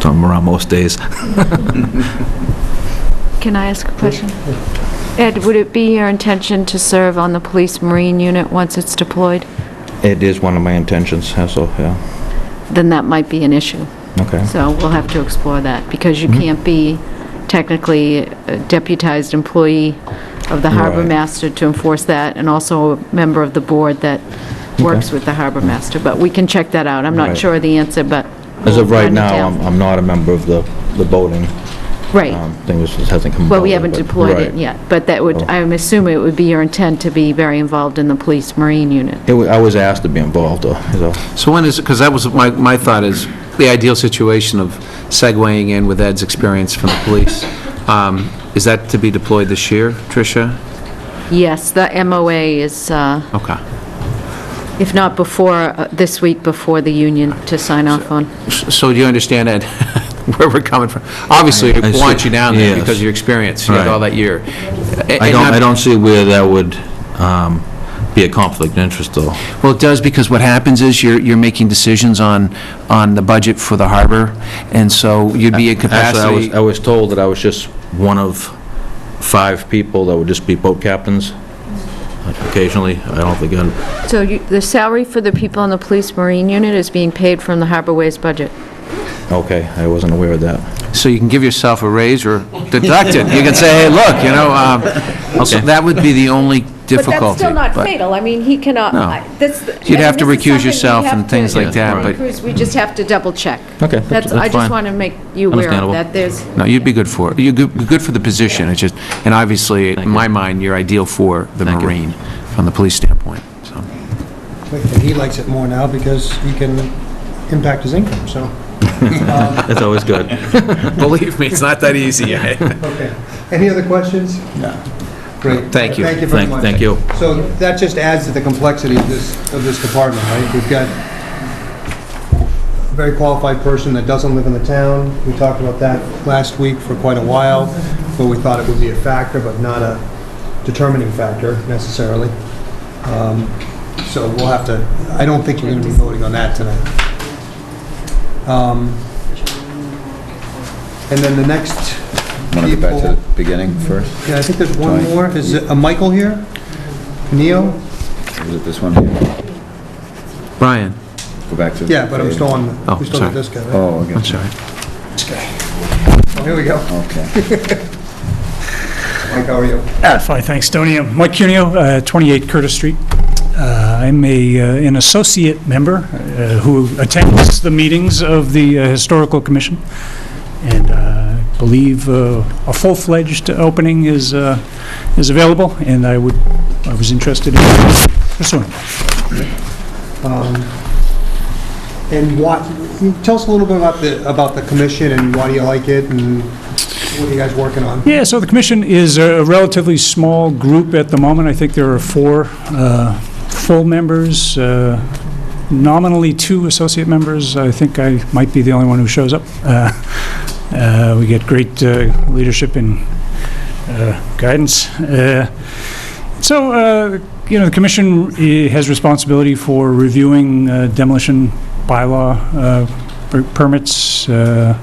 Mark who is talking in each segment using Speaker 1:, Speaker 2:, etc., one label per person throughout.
Speaker 1: so I'm around most days.
Speaker 2: Can I ask a question? Ed, would it be your intention to serve on the police marine unit once it's deployed?
Speaker 3: It is one of my intentions, uh, so, yeah,
Speaker 2: Then that might be an issue.
Speaker 3: okay.
Speaker 2: So we'll have to explore that, because
Speaker 3: Mm-hmm.
Speaker 2: you can't be technically a deputized employee of the harbor
Speaker 3: Right.
Speaker 2: master to enforce that, and also a member of the board that works
Speaker 3: Okay.
Speaker 2: with the harbor master. But we can check that out. I'm not
Speaker 3: Right.
Speaker 2: sure of the answer, but...
Speaker 3: As of
Speaker 2: we'll
Speaker 3: right
Speaker 2: find it
Speaker 3: now,
Speaker 2: out.
Speaker 3: I'm, I'm not a member of the, the boating. um,
Speaker 2: Right.
Speaker 3: Thing was, just hasn't come about.
Speaker 2: Well, we haven't deployed it yet, but that would,
Speaker 3: Oh.
Speaker 2: I'm assuming it would be your intent to be very involved in the police marine unit.
Speaker 3: It wa, I was asked to be involved, though, so,
Speaker 4: So when is, because that was, my, my thought is, the ideal situation of segueing in with Ed's experience from the police, um, is that to be deployed this year, Tricia?
Speaker 2: Yes, the MOA is, uh,
Speaker 4: Okay.
Speaker 2: if not before, uh, this week before the union to sign off on.
Speaker 4: So do you understand, Ed, where we're coming from? Obviously,
Speaker 1: I
Speaker 4: we
Speaker 1: see.
Speaker 4: want you down there
Speaker 1: Yes.
Speaker 4: because of your experience, you had all
Speaker 1: Right.
Speaker 4: that year.
Speaker 1: I don't, I don't see where that would um, be a conflict of interest, though.
Speaker 4: Well, it does, because what happens is you're, you're making decisions on, on the budget for the harbor, and so you'd be in
Speaker 3: Actually, I was,
Speaker 4: capacity.
Speaker 3: I was told that I was just one of five people that would just be boat captains occasionally. I don't think, I'd-
Speaker 2: So you- the salary for the people in the police marine unit is being paid from the Harbor Ways budget?
Speaker 3: okay, I wasn't aware of that.
Speaker 4: So you can give yourself a raise or deduct it. You can say, hey, look, you know, um, also, that would be the only difficulty.
Speaker 5: But that's still not
Speaker 4: but-
Speaker 5: fatal. I mean, he cannot,
Speaker 4: No.
Speaker 5: I- this... I
Speaker 4: You'd
Speaker 5: mean,
Speaker 4: have to
Speaker 5: this is
Speaker 4: recuse
Speaker 5: something we
Speaker 4: yourself
Speaker 5: have
Speaker 4: and
Speaker 5: to-
Speaker 4: things like that,
Speaker 5: Tom
Speaker 4: but-
Speaker 5: Cruise, we just have to double-check.
Speaker 3: Okay, that's-
Speaker 5: That's,
Speaker 3: that's
Speaker 5: I just
Speaker 3: fine.
Speaker 5: want to make you aware of
Speaker 1: Understandable.
Speaker 5: that. There's,
Speaker 4: No, you'd be good for it. You're good, good for the position, it's just, and obviously, in my mind, you're ideal for the
Speaker 1: Thank you.
Speaker 4: Marine, from the police standpoint, so.
Speaker 6: And he likes it more now because he can impact his income, so,
Speaker 1: That's always good.
Speaker 4: Believe me, it's not that easy. eh?
Speaker 6: okay. Any other questions? No. Great.
Speaker 4: Thank you.
Speaker 6: Thank you very
Speaker 1: Thank
Speaker 6: much.
Speaker 1: thank you.
Speaker 6: So that just adds to the complexity of this, of this department, right? We've got a very qualified person that doesn't live in the town. We talked about that last week for quite a while, where we thought it would be a factor, but not a determining factor necessarily. Um, So we'll have to, I don't think we're going to be voting on that tonight. Um, And then the next
Speaker 7: Want to go back to
Speaker 6: people-
Speaker 7: the beginning first?
Speaker 6: yeah, I think there's one
Speaker 7: Tony.
Speaker 6: more. Is it a Michael here? Neo?
Speaker 7: Was it this one here?
Speaker 4: Brian,
Speaker 7: Go back to...
Speaker 6: Yeah, but I'm still on,
Speaker 4: Oh,
Speaker 6: we still got
Speaker 4: sorry.
Speaker 6: this guy. right?
Speaker 7: Oh, I
Speaker 4: I'm
Speaker 7: got you.
Speaker 4: sorry.
Speaker 6: Oh, Here we go.
Speaker 7: Okay.
Speaker 6: Mike, how are you?
Speaker 8: Ah, Fine, thanks, Tony. I'm Mike Cuneo, uh, 28 Curtis Street. Uh, I'm a, uh, an associate member uh, who attends the meetings of the uh, Historical Commission, and uh, I believe uh, a full-fledged opening is, uh, is available, and I would, I was interested in pursuing.
Speaker 6: Um, And what, tell us a little bit about the, about the commission and why do you like it and what are you guys working on?
Speaker 8: Yeah, so the commission is a relatively small group at the moment. I think there are four uh, full members, uh, nominally two associate members. I think I might be the only one who shows up. Uh, uh, We get great uh, leadership and uh, guidance. Uh, So, uh, you know, the commission eh, has responsibility for reviewing uh, demolition bylaw uh, per- permits, uh,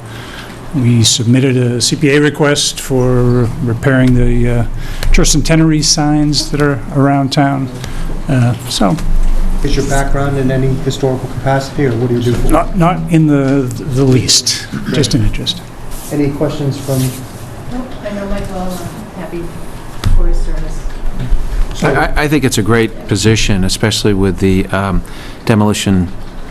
Speaker 8: we submitted a CPA request for repairing the uh, church centenary signs that are around town. Uh, So,
Speaker 6: Is your background in any historical capacity or what do you do? for-
Speaker 8: not, not in the, the least, just an interest.
Speaker 6: Any questions from?
Speaker 2: I know Michael, happy for his service.
Speaker 6: so-
Speaker 4: I, I think it's a great position, especially with the um, demolition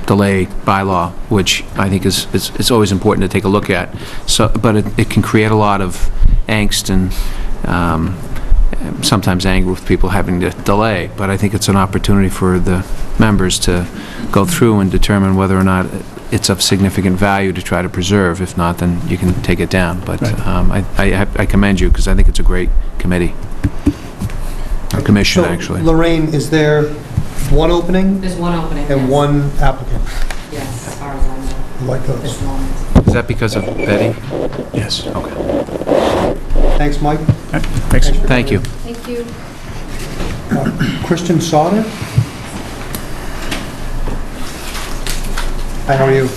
Speaker 4: delay bylaw, which I think is, is- it's always important to take a look at. So, but it, it can create a lot of angst and um, sometimes anger with people having to delay. But I think it's an opportunity for the members to go through and determine whether or not it's of significant value to try to preserve. If not, then you can take it down. But
Speaker 8: Right.
Speaker 4: um, I, I I commend you, because I think it's a great committee. Or commission,
Speaker 6: So,
Speaker 4: actually.
Speaker 6: Lorraine, is there one opening
Speaker 9: There's one opening.
Speaker 6: and
Speaker 9: yes.
Speaker 6: one applicant?
Speaker 9: Yes, as far as I know,
Speaker 6: Like
Speaker 9: there's
Speaker 6: those.
Speaker 9: one.
Speaker 4: Is that because of Betty?
Speaker 8: Yes.
Speaker 6: Thanks, Mike.
Speaker 8: Thanks.
Speaker 6: Thanks for
Speaker 4: Thank you.
Speaker 2: Thank you.
Speaker 6: Christian Sauter? Hi, how are you?